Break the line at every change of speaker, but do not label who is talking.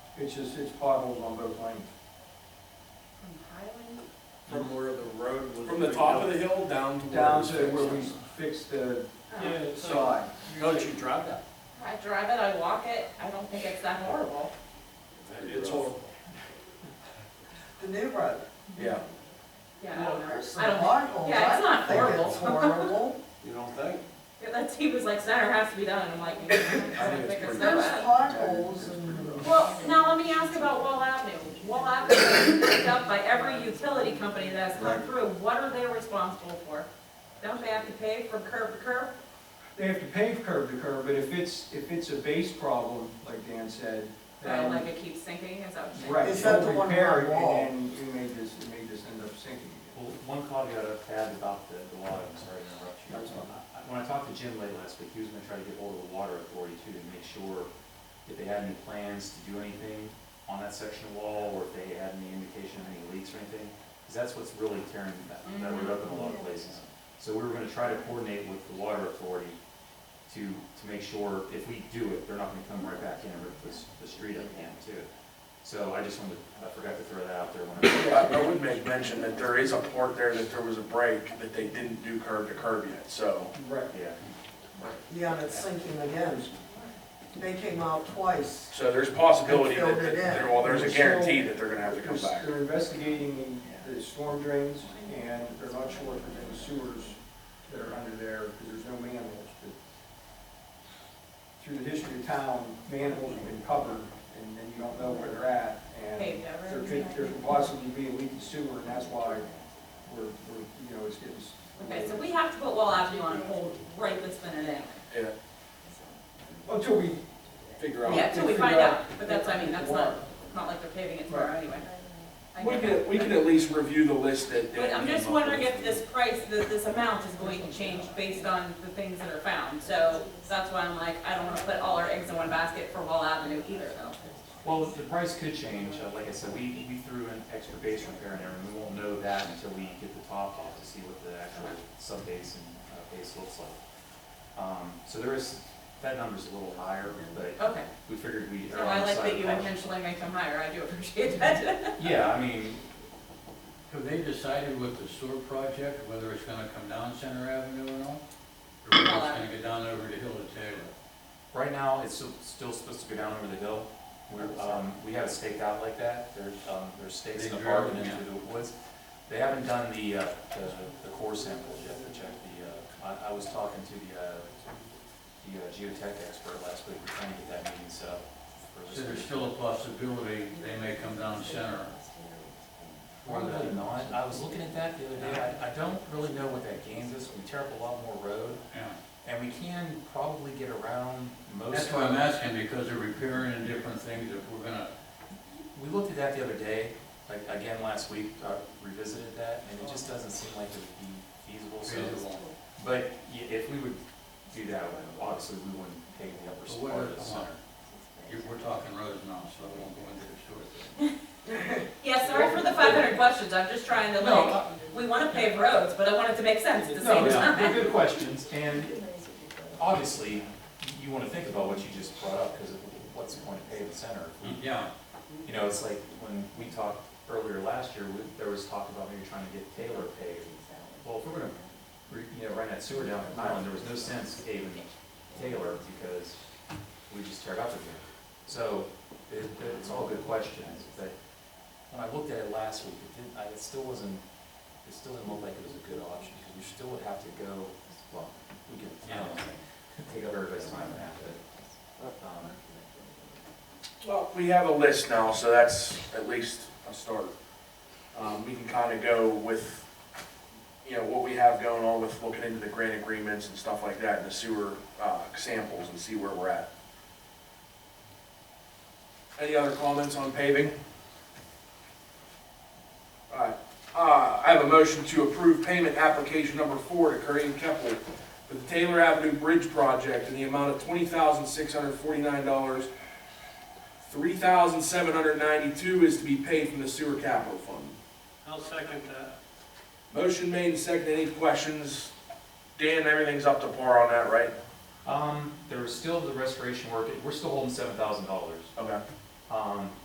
It's just, it's potholes on both lanes.
From Highland?
From where the road was.
From the top of the hill down to.
Down to
where it's
where we
fixed.
fixed the
Oh.
side.
Don't you drive that?
I drive it, I walk it, I don't think it's that horrible.
It's horrible.
The new road.
Yeah.
Yeah, I
Well,
don't know. Oh,
there's some
I don't-
potholes.
yeah, it's
I don't
not
think
horrible.
it's horrible.
You don't think?
Yeah, That's, he was like, center has to be done, and I'm like, I don't think it's that
There's
bad.
potholes and.
Well, now let me ask about Wall Avenue. Wall Avenue is picked up by every utility company that has come through, what are they responsible for? Don't they have to pay from curb to curb?
They have to pave curb to curb, but if it's, if it's a base problem, like Dan said,
Right,
then,
like it keeps sinking, is that what you're saying?
Um, right,
Is that
you'll
the one
repair it,
wall?
and then you may just, it may just end up sinking again.
Well, one caveat I've had about the, the water, I'm sorry to interrupt you.
That's fine.
I- When I talked to Jim late last week, he was gonna try to get hold of the water authority too, to make sure if they had any plans to do anything on that section of wall, or if they had any indication of any leaks or anything, because that's what's really tearing that, that road up in a lot of places. So we were gonna try to coordinate with the water authority to, to make sure if we do it, they're not gonna come right back in and rip this, the street up again too. So I just wanted, I forgot to throw that out there when I.
I I would make mention that there is a part there that there was a break that they didn't do curb to curb yet, so.
Right.
Yeah.
Yeah, and it's sinking again. They came out twice.
So there's possibility that,
They filled it in.
that- well, there's a guarantee that they're gonna have to come back.
They're investigating the storm drains, and they're not sure if there's any sewers that are under there, because there's no manholes, but through the history of town, manholes have been covered, and then you don't know where they're at, and
Paved over.
there could, there could possibly be a leaking sewer, and that's why we're, we're, you know, it's getting. s-
Okay, so we have to put Wall Avenue on hold right this minute anyway.
Yeah,
Until we,
figure out.
Yeah, till we
Figure
find
out
out, but that's, I mean, that's not, not like they're paving it tomorrow
Right.
anyway. I
We
get
can,
it.
we can at least review the list that. that
But I'm
we
just
came up
wondering
with.
if this price, that this amount is going to change based on the things that are found. So that's why I'm like, I don't wanna put all our eggs in one basket for Wall Avenue either though.
Well, the price could change, Uh, like I said, we, we threw an extra base repair in there, and we won't know that until we get the top off to see what the actual sub-base and uh, base looks like. Um, so there is, that number's a little higher, but
Okay,
we figured we.
so I like that you intentionally make them higher, I do appreciate that.
Yeah, I mean,
Have they decided with the sewer project, whether it's gonna come down Center Avenue or not? Or whether it's gonna go down over the hill to Taylor?
right now, it's still, still supposed to go down over the hill. We're, um, we have it staked out like that, there's, um, there's stakes in the
They
park
drill,
and into the woods. They haven't done the, uh, the, the core samples yet to check the, uh, I, I was talking to the, uh, the uh, geotech expert last week, we're trying to get that meeting set up. for this
So there's
week.
still a possibility they may come down Center.
Probably not, I was looking at that the other day, I, I don't really know what that gains us, we tear up a lot more road,
Yeah.
and we can probably get around most.
That's why I'm asking, because they're repairing and different things, if we're gonna,
We looked at that the other day, like, again, last week, uh, revisited that, and it just doesn't seem like it would be feasible, so.
feasible.
But y- if we would do that, then obviously we wouldn't pave the
But
upper
what
part of
is
the
the
center.
center? If we're talking roads now, so I won't go into the sewer thing.
Yeah, sorry for the five hundred questions, I'm just trying to
No,
like,
uh,
we wanna pave roads, but I want it to make sense at the
No,
same
they're
time.
they're good questions, and obviously, y- you wanna think about what you just brought up, because what's the point of paving the center? if we-
Yeah,
You know, it's like when we talked earlier last year, we- there was talk about maybe trying to get Taylor paved. Well, if we're gonna, re- you know, run that sewer down the island, there was no sense paving Taylor because we just tear it up again. So it, it's all good questions, but when I looked at it last week, it didn't, I, it still wasn't, it still didn't look like it was a good option because we still would have to go, well, we could, I don't know, take up everybody's time and that, but, um,
Well, we have a list now, so that's at least a start. Um, we can kind of go with, you know, what we have going on with looking into the grant agreements and stuff like that, and the sewer, uh, samples and see where we're at. Any other comments on paving? Alright, uh, I have a motion to approve payment application number four to Curry and Keppel for the Taylor Avenue Bridge Project in the amount of twenty thousand, six hundred forty-nine dollars Three thousand seven hundred ninety-two is to be paid from the sewer capital fund.
I'll second that.
Motion made and seconded, any questions? Dan, everything's up to par on that, right?
Um, there was still the restoration work, we're still holding seven thousand dollars.
Okay.
Um,